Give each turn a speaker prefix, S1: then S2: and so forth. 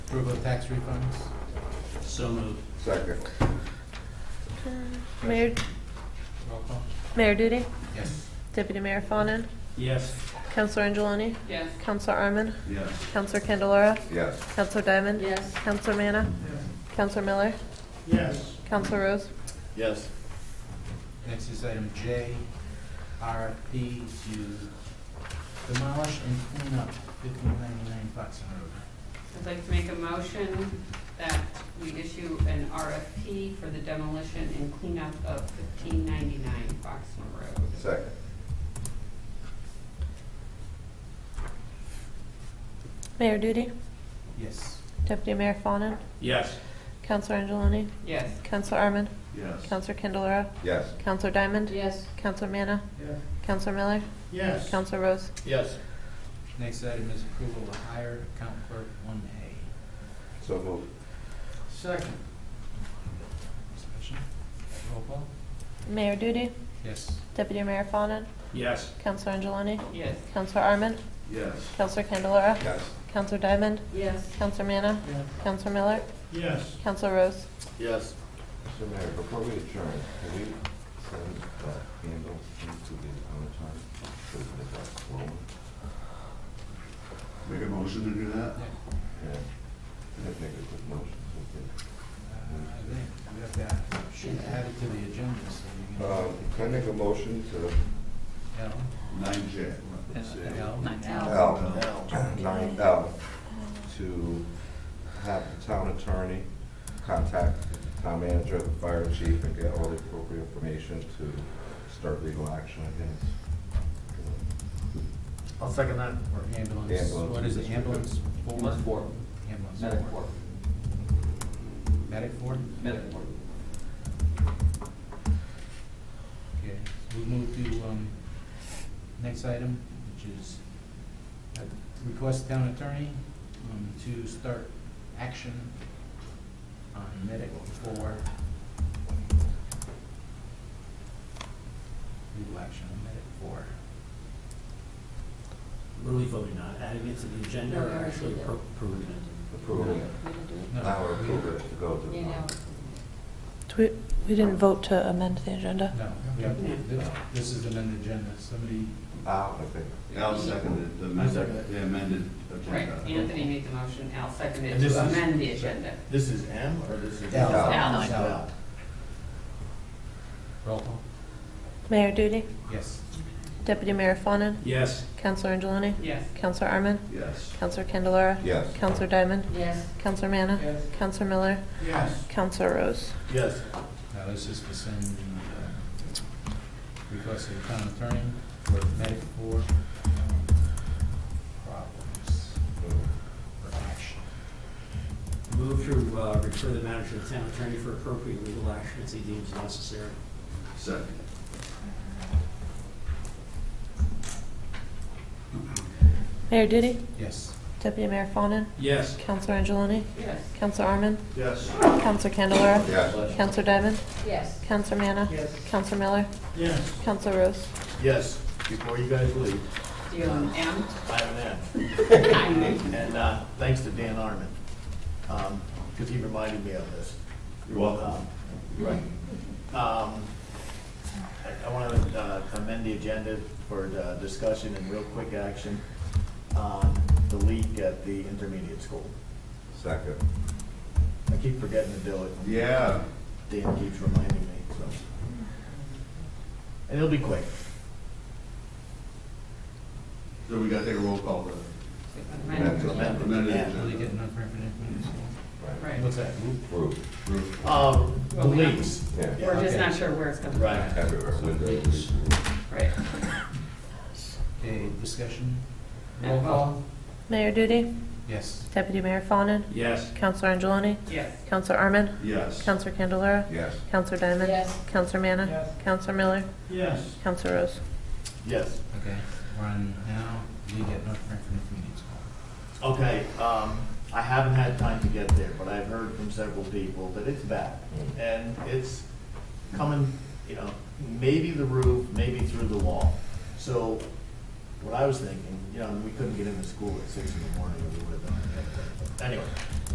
S1: Approval of tax refunds?
S2: So moved.
S3: Second.
S4: Mayor,
S1: Roll call?
S4: Mayor Duty,
S1: Yes.
S4: Deputy Mayor Fawnin,
S2: Yes.
S4: Counselor Angeloni,
S5: Yes.
S4: Counselor Arman,
S2: Yes.
S4: Counselor Candelara,
S3: Yes.
S4: Counselor Diamond.
S5: Yes.
S4: Counselor Manna, Counselor Miller,
S2: Yes.
S4: Counselor Rose.
S2: Yes.
S1: Next is item J, RFP to demolish and clean up fifteen ninety-nine Foxen Road.
S5: I'd like to make a motion that we issue an RFP for the demolition and cleanup of fifteen ninety-nine Foxmore Road.
S3: Second.
S4: Mayor Duty,
S1: Yes.
S4: Deputy Mayor Fawnin,
S2: Yes.
S4: Counselor Angeloni,
S5: Yes.
S4: Counselor Arman,
S2: Yes.
S4: Counselor Candelara,
S3: Yes.
S4: Counselor Diamond,
S5: Yes.
S4: Counselor Manna,
S2: Yes.
S4: Counselor Miller,
S2: Yes.
S4: Counselor Rose.
S2: Yes.
S1: Next item is approval to hire account clerk one A.
S3: So moved.
S2: Second.
S1: Discussion? Roll call?
S4: Mayor Duty,
S1: Yes.
S4: Deputy Mayor Fawnin,
S2: Yes.
S4: Counselor Angeloni,
S5: Yes.
S4: Counselor Arman,
S2: Yes.
S4: Counselor Candelara,
S3: Yes.
S4: Counselor Diamond,
S5: Yes.
S4: Counselor Manna, Counselor Miller,
S2: Yes.
S4: Counselor Rose.
S2: Yes.
S3: Mr. Mayor, before we adjourn, can we send the handles into the owner so that it's not swollen?
S6: Make a motion to do that?
S1: Yeah.
S3: Yeah. I think it's a good motion. so
S1: Uh, I think we have to, should add it to the agenda, so you
S3: good.
S7: Uh,
S3: Um,
S1: can.
S3: Can I make a motion to
S1: L.
S6: Nine J.
S1: L.
S3: L, nine L, to have the town attorney contact the town manager, the fire chief, and get all the appropriate information to start legal action against
S2: I'll second that.
S1: Or ambulance,
S3: Ambulance.
S1: what is it, ambulance four?
S7: Ambulance four,
S1: Ambulance
S7: medic
S1: four.
S7: four,
S1: Medic four?
S7: medic four.
S1: Okay, so we move to, um, next item, which is uh, request town attorney, um, to start action on medic for legal action on medic four.
S2: What are we voting on? Adding it to the agenda
S5: No,
S2: or
S5: we're
S2: actually
S5: actually-
S2: appro- approving it?
S3: approving it.
S1: No,
S3: Now we're
S1: we-
S3: approving it to go to.
S5: You know,
S4: We, we didn't vote to amend the agenda.
S1: No, we have, thi- this is an agenda, somebody,
S3: Ah, okay.
S6: Al seconded the
S2: I second it.
S6: amended, the amended
S5: right,
S6: agenda.
S5: Anthony made the motion, Al seconded
S2: And
S5: it
S2: this
S5: to
S2: is-
S5: amend the agenda.
S2: This is M or this is?
S1: L.
S5: Al.
S1: Al. roll call,
S4: Mayor Duty,
S1: yes.
S4: Deputy Mayor Fawnin,
S2: Yes.
S4: Counselor Angeloni,
S5: Yes.
S4: Counselor Arman,
S6: Yes.
S4: Counselor Candelara,
S3: Yes.
S4: Counselor Diamond,
S5: Yes.
S4: Counselor Manna,
S1: Yes.
S4: Counselor Miller,
S2: Yes.
S4: Counselor Rose.
S2: Yes.
S1: Now, this is to send the uh, request of the town attorney for medic for um, problems or action.
S2: Move to uh, refer the matter to the town attorney for appropriate legal action as he deems necessary.
S6: Second.
S4: Mayor Duty,
S1: Yes.
S4: Deputy Mayor Fawnin,
S2: Yes.
S4: Counselor Angeloni,
S5: Yes.
S4: Counselor Arman,
S6: Yes.
S4: Counselor Candelara,
S3: Yes.
S4: Counselor Diamond,
S5: Yes.
S4: Counselor Manna, Counselor Miller,
S2: Yes.
S4: Counselor Rose.
S8: Yes, before you guys leave,
S5: Do you have an M?
S8: I have an ad.
S5: I know.
S8: And uh, thanks to Dan Arman, because he reminded me of this.
S6: You're welcome.
S8: Um, Right. Um, I want to amend the agenda for the discussion and real quick action on the leak at the intermediate school.
S3: Second.
S8: I keep forgetting to do it.
S6: Yeah.
S8: Dan keeps reminding me, so. And it'll be quick.
S6: So we gotta take a roll call then.
S5: Amend.
S3: Amend.
S6: Amended
S8: Yeah.
S1: Really
S6: agenda.
S1: getting unfair information.
S3: Right.
S5: Right.
S1: What's that, group?
S3: Approved.
S6: Approved.
S8: Um, The
S5: Well, we have-
S8: leaks.
S3: Yeah.
S5: We're just not sure where it's coming from.
S8: Right.
S3: Everywhere. Windows.
S5: Right.
S1: Okay, discussion?
S5: Roll
S1: Roll call?
S4: Mayor Duty,
S1: Yes.
S4: Deputy Mayor Fawnin,
S2: Yes.
S4: Counselor Angeloni,
S5: Yes.
S4: Counselor Arman,
S6: Yes.
S4: Counselor Candelara,
S3: Yes.
S4: Counselor Diamond.
S5: Yes.
S4: Counselor Manna.
S2: Yes.
S4: Counselor Miller.
S2: Yes.
S4: Counselor Rose.
S8: Yes.
S1: Okay, we're on now, we get unfair information.
S8: Okay, um, I haven't had time to get there, but I've heard from several people that it's bad. And it's coming, you know, maybe the roof, maybe through the wall. So what I was thinking, you know, we couldn't get into school at six in the morning, we would have done it. Anyway,